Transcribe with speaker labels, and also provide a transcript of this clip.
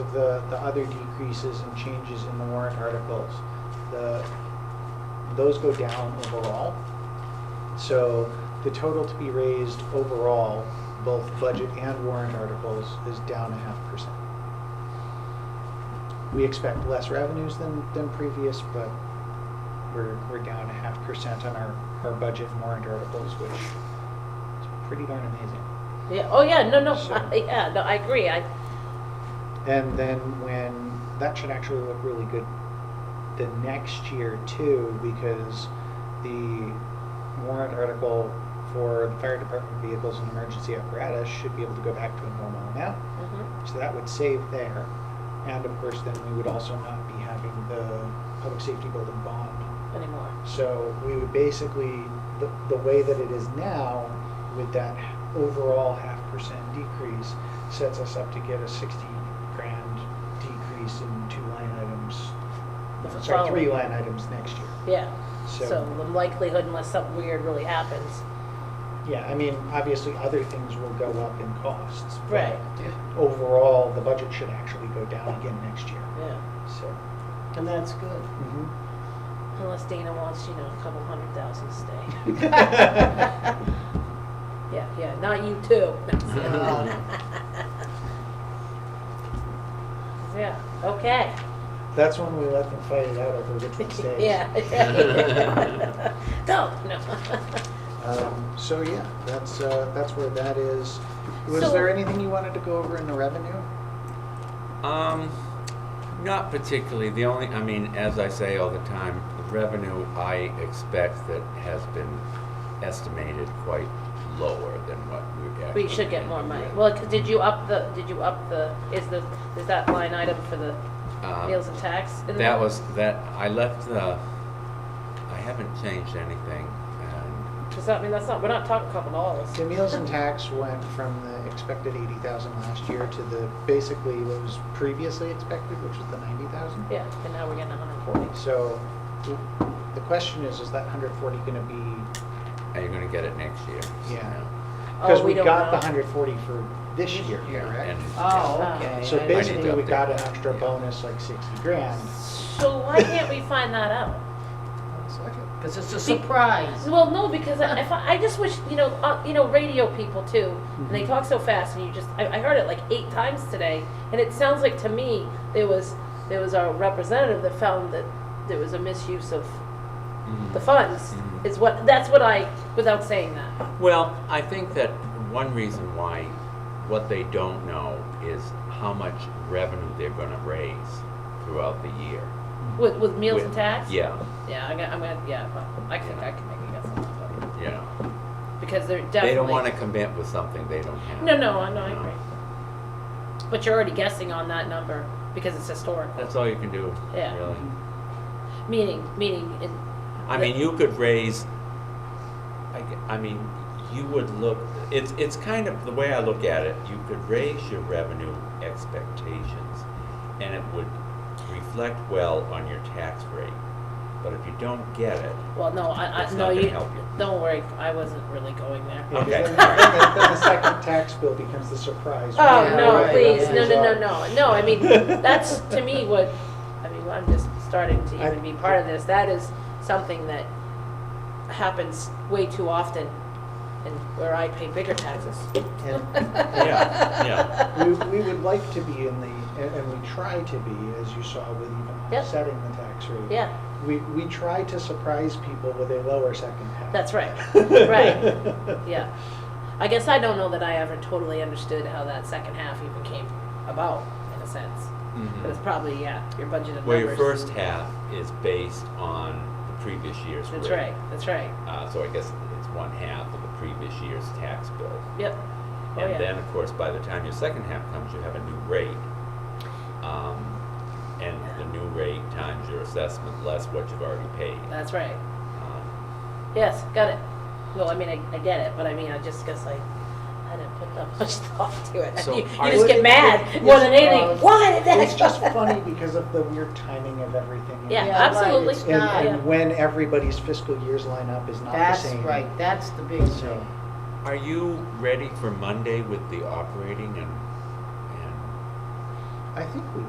Speaker 1: of the, the other decreases and changes in the warrant articles, the, those go down overall. So the total to be raised overall, both budget and warrant articles, is down a half percent. We expect less revenues than, than previous, but we're, we're down a half percent on our, our budget and warrant articles, which is pretty darn amazing.
Speaker 2: Yeah, oh, yeah, no, no,
Speaker 1: So-
Speaker 2: yeah, no, I agree, I,
Speaker 1: And then when, that should actually look really good the next year too, because the warrant article for the fire department vehicles and emergency apparatus should be able to go back to a normal amount.
Speaker 2: mhm.
Speaker 1: So that would save there. And of course, then we would also not be having the public safety building bond.
Speaker 2: anymore.
Speaker 1: So we would basically, the, the way that it is now, with that overall half percent decrease, sets us up to get a sixty grand decrease in two line items.
Speaker 2: The
Speaker 1: I'm Sorry, three
Speaker 2: following.
Speaker 1: line items next year.
Speaker 2: Yeah,
Speaker 1: So-
Speaker 2: so the likelihood unless something weird really happens.
Speaker 1: Yeah, I mean, obviously, other things will go up in costs. but
Speaker 2: Right.
Speaker 1: Overall, the budget should actually go down again next year,
Speaker 2: Yeah,
Speaker 1: so.
Speaker 3: And that's good.
Speaker 1: mhm.
Speaker 2: unless Dana wants, you know, a couple hundred thousand to stay. Yeah, yeah, not you too. Yeah, okay.
Speaker 1: That's when we let them fight it out over which one stays.
Speaker 2: Yeah. No, no.
Speaker 1: Um, So, yeah, that's, uh, that's where that is. Was
Speaker 2: So-
Speaker 1: there anything you wanted to go over in the revenue?
Speaker 4: Um, not particularly. The only, I mean, as I say all the time, the revenue I expect that has been estimated quite lower than what we actually.
Speaker 2: We should get more money.
Speaker 4: ended
Speaker 2: Well, 'cause did you up the, did you up the, is the, is that line item for the
Speaker 4: with. Um,
Speaker 2: meals and tax? in there?
Speaker 4: That was, that, I left the, I haven't changed anything and,
Speaker 2: Does that mean that's not, we're not talking a couple dollars?
Speaker 1: The meals and tax went from the expected eighty thousand last year to the, basically what was previously expected, which was the ninety thousand.
Speaker 2: Yeah, and now we're getting a hundred forty.
Speaker 1: So, the question is, is that hundred forty gonna be,
Speaker 4: are you gonna get it next year?
Speaker 1: Yeah. because
Speaker 2: Oh,
Speaker 1: we
Speaker 2: don't
Speaker 1: got the
Speaker 2: know.
Speaker 1: hundred forty for this year, correct?
Speaker 4: And-
Speaker 3: Oh, okay.
Speaker 1: So
Speaker 3: I-
Speaker 4: basi-
Speaker 1: basically, we
Speaker 4: update
Speaker 1: got an
Speaker 4: that,
Speaker 1: extra
Speaker 4: yeah.
Speaker 1: bonus, like sixty grand.
Speaker 2: So why can't we find that out?
Speaker 3: Because it's a surprise.
Speaker 2: Well, no, because I- if I, I just wish, you know, uh, you know, radio people too, and
Speaker 1: Mm-hmm.
Speaker 2: they talk so fast, and you just, I, I heard it like eight times today, and it sounds like to me, there was, there was our representative that found that there was a misuse of
Speaker 4: Mhm.
Speaker 2: the funds,
Speaker 4: Mhm.
Speaker 2: is what, that's what I, without saying that.
Speaker 4: Well, I think that one reason why what they don't know is how much revenue they're gonna raise throughout the year.
Speaker 2: With, with meals and
Speaker 4: With-
Speaker 2: tax?
Speaker 4: Yeah,
Speaker 2: Yeah, I'm gonna, I'm gonna, yeah, well, I can, I can make a guess on that,
Speaker 4: you know,
Speaker 2: but- because they're definitely.
Speaker 4: they don't wanna commit with something they don't have.
Speaker 2: No, no, I know, I
Speaker 4: No.
Speaker 2: agree. But you're already guessing on that number, because it's historical,
Speaker 4: That's all you can do,
Speaker 2: Yeah.
Speaker 4: really.
Speaker 2: meaning, meaning, in
Speaker 4: I mean, you could raise, I, g- I mean, you would look, it's, it's kind of, the way I look at it, you could raise your revenue expectations and it would reflect well on your tax rate. But if you don't get it,
Speaker 2: Well, no, I, I,
Speaker 4: It's
Speaker 2: no,
Speaker 4: not gonna
Speaker 2: you,
Speaker 4: help you.
Speaker 2: don't worry, I wasn't really going there.
Speaker 1: Yeah, 'cause
Speaker 4: Okay.
Speaker 1: Then then the second tax bill becomes the surprise.
Speaker 2: Oh,
Speaker 3: Yeah,
Speaker 2: no,
Speaker 3: right,
Speaker 2: please, no,
Speaker 3: right.
Speaker 2: no, no, no, no, I mean, that's to me what, I mean, I'm just starting to even be part of this, that is something that happens way too often, and where I pay bigger taxes.
Speaker 1: And
Speaker 4: yeah, yeah.
Speaker 1: we, we would like to be in the, and, and we try to be, as you saw with even
Speaker 2: Yep.
Speaker 1: offsetting the tax rate.
Speaker 2: Yeah,
Speaker 1: We, we try to surprise people with a lower second half.
Speaker 2: that's right, right, yeah. I guess I don't know that I ever totally understood how that second half even came about, in a sense,
Speaker 4: Mhm.
Speaker 2: but it's probably, yeah, your budget of numbers.
Speaker 4: Well, your first half is based on the previous year's rate.
Speaker 2: That's right, that's right.
Speaker 4: Uh, so I guess it's one half of the previous year's tax bill.
Speaker 2: Yep. Oh, yeah.
Speaker 4: And then, of course, by the time your second half comes, you have a new rate. Um, and the new rate times your assessment less what you've already paid.
Speaker 2: That's right.
Speaker 4: Um,
Speaker 2: Yes, got it. Well, I mean, I, I get it, but I mean, I just guess like, I didn't put that much thought to it.
Speaker 4: So,
Speaker 2: you, you
Speaker 4: are-
Speaker 2: just get mad more than
Speaker 1: Uh,
Speaker 2: anything. Why did that?
Speaker 1: It's just funny because of the weird timing of everything.
Speaker 2: Yeah,
Speaker 3: Yeah, right,
Speaker 2: absolutely.
Speaker 3: it's
Speaker 1: And,
Speaker 3: not-
Speaker 2: Yeah.
Speaker 1: and when everybody's fiscal years line up is not the
Speaker 3: That's
Speaker 1: same.
Speaker 3: right, that's the big
Speaker 1: So,
Speaker 3: thing.
Speaker 4: Are you ready for Monday with the operating and, and
Speaker 1: I, I think we